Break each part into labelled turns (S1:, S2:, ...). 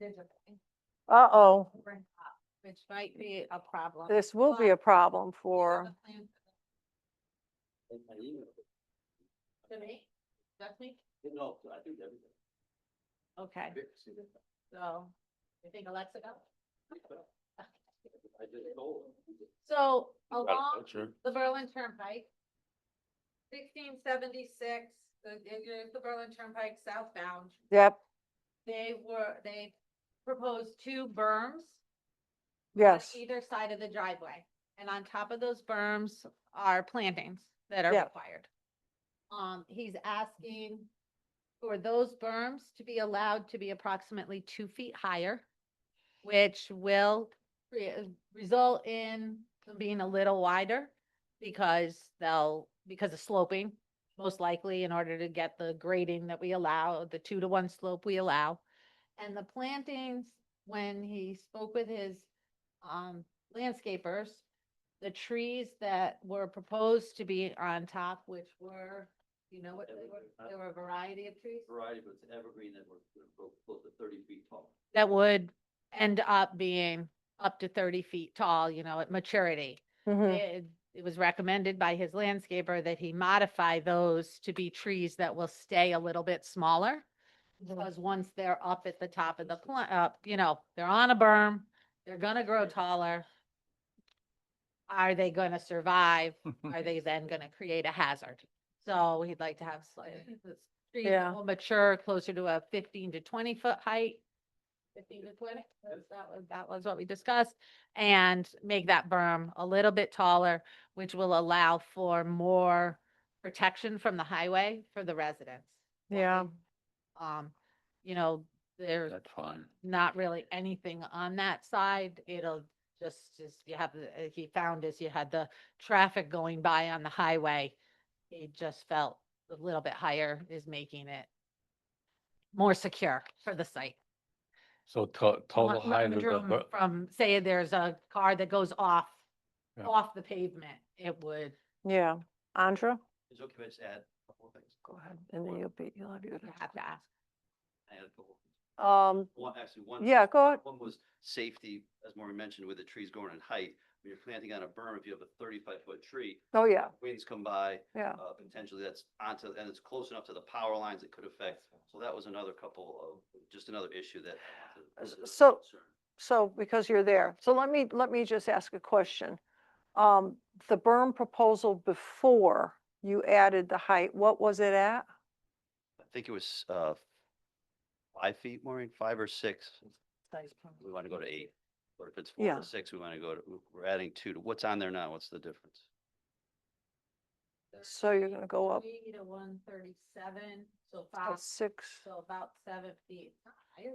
S1: There's a point
S2: Uh-oh,
S1: where it stops, Which might be a problem.
S2: this will be a problem for,
S3: In my email.
S1: To me, definitely,
S3: No, I think everything.
S1: okay,
S3: Vic, see that?
S1: so, you think Alexa got it?
S3: I just told him.
S1: So
S3: Got it,
S1: along
S3: that's true.
S1: the Berlin Turnpike, sixteen seventy-six, the, the- the Berlin Turnpike southbound,
S2: yep,
S1: they were, they proposed two berms.
S2: yes,
S1: on either side of the driveway. And on top of those berms are plantings that are
S2: Yeah.
S1: required. Um, he's asking for those berms to be allowed to be approximately two feet higher, which will re- result in them being a little wider because they'll, because of sloping, most likely in order to get the grading that we allow, the two to one slope we allow. And the plantings, when he spoke with his um, landscapers, the trees that were proposed to be on top, which were, you know what, they were, there were a variety of trees
S3: Variety, but it's evergreen that we're, we're both close to thirty feet tall.
S1: that would end up being up to thirty feet tall, you know, at maturity.
S2: mhm,
S1: It it was recommended by his landscaper that he modify those to be trees that will stay a little bit smaller.
S2: Hmm.
S1: Because once they're up at the top of the plant, uh, you know, they're on a berm, they're gonna grow taller. Are they gonna survive? Are they then gonna create a hazard? So he'd like to have slightly, trees
S2: Yeah.
S1: that will mature closer to a fifteen to twenty foot height. Fifteen to twenty, that was, that was what we discussed, and make that berm a little bit taller, which will allow for more protection from the highway for the residents.
S2: yeah,
S1: Um, you know, there's
S3: fine.
S1: not really anything on that side. It'll just, is you have, the- uh, he found is you had the traffic going by on the highway. He just felt a little bit higher is making it more secure for the site.
S4: So to- total
S1: Lot- lot
S4: height of
S1: of
S4: the,
S1: room
S4: bu-
S1: From, say there's a car that goes off,
S4: Yeah.
S1: off the pavement, it would,
S2: yeah. Andra?
S3: Is it okay, if I just add a couple of things.
S2: Go ahead, and then you'll be, you'll have your.
S1: you have to ask.
S3: I had a couple.
S2: Um,
S3: One, actually, one.
S2: yeah, go, ahead.
S3: One was safety, as Maureen mentioned, with the trees growing in height. When you're planting on a berm, if you have a thirty-five foot tree,
S2: oh, yeah,
S3: winds come by,
S2: yeah,
S3: uh, potentially that's onto, and it's close enough to the power lines it could affect. So that was another couple of, just another issue that. I wanted to- was a
S2: So-
S3: concern.
S2: so because you're there, so let me, let me just ask a question. Um, the berm proposal before you added the height, what was it at?
S3: I think it was, uh, five feet, Maureen, five or six. We want to go to eight. Or if it's four
S2: Yeah.
S3: to six, we want to go to, we're adding two to, what's on there now? What's the difference?
S2: So you're gonna go up
S1: 33 to one thirty-seven, so
S2: at
S1: five,
S2: six,
S1: so about seven feet higher.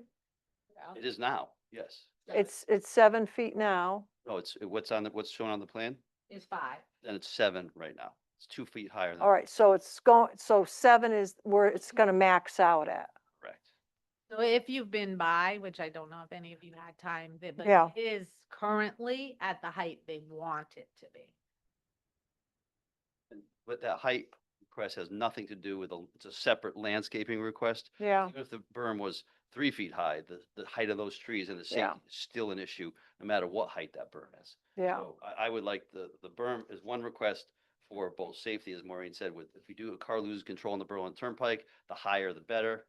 S1: Yeah.
S3: It is now, yes.
S1: Seven
S2: it's, it's seven feet now,
S3: No, it's, what's on the, what's shown on the plan?
S1: Is five.
S3: And it's seven right now. It's two feet higher than.
S2: all right, so it's going, so seven is where it's gonna max out at.
S3: Correct.
S1: So if you've been by, which I don't know if any of you had time, th- but
S2: Yeah.
S1: it is currently at the height they want it to be.
S3: And- But that height request has nothing to do with, a. it's a separate landscaping request.
S2: Yeah,
S3: Even if the berm was three feet high, the, the height of those trees and the
S2: Yeah.
S3: safety is still an issue, no matter what height that berm is.
S2: yeah,
S3: So I, I would like the, the berm is one request for both safety, as Maureen said, with, if you do a car loses control on the Berlin Turnpike, the higher the better,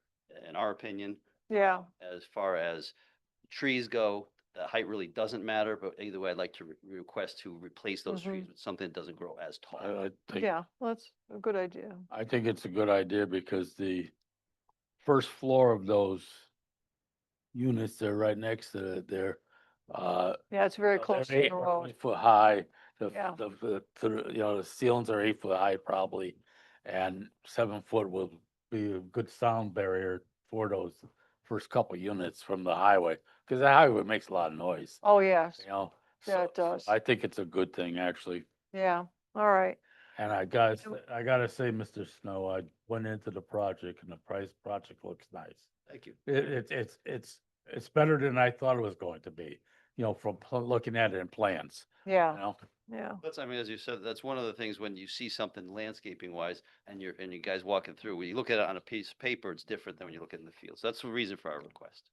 S3: in our opinion.
S2: yeah,
S3: As far as trees go, the height really doesn't matter, but either way, I'd like to re- request to replace those
S2: Mhm.
S3: trees with something that doesn't grow as tall.
S4: I, I think,
S2: yeah, that's a good idea.
S4: I think it's a good idea because the first floor of those units, they're right next to it, they're, uh,
S2: Yeah, it's very
S4: they're
S2: close to
S4: eight-
S2: the road.
S4: eight Foot high, the,
S2: Yeah.
S4: the, the- the, you know, the ceilings are eight foot high probably, and seven foot will be a good sound barrier for those first couple units from the highway, because the highway makes a lot of noise,
S2: Oh, yes,
S4: you know?
S2: Yeah,
S4: so-
S2: it
S4: so
S2: does.
S4: I think it's a good thing, actually,
S2: yeah, all right,
S4: And I gotta,
S2: So-
S4: say- I gotta say, Mr. Snow, I went into the project and the price, project looks nice.
S3: Thank you.
S4: It, it's, it's, it's, it's better than I thought it was going to be, you know, from pl- looking at it in plans, you
S2: yeah,
S4: know?
S2: yeah.
S3: That's, I mean, as you said, that's one of the things when you see something landscaping wise and you're, and you guys walking through, when you look at it on a piece of paper, it's different than when you look at it in the field. So that's the reason for our request.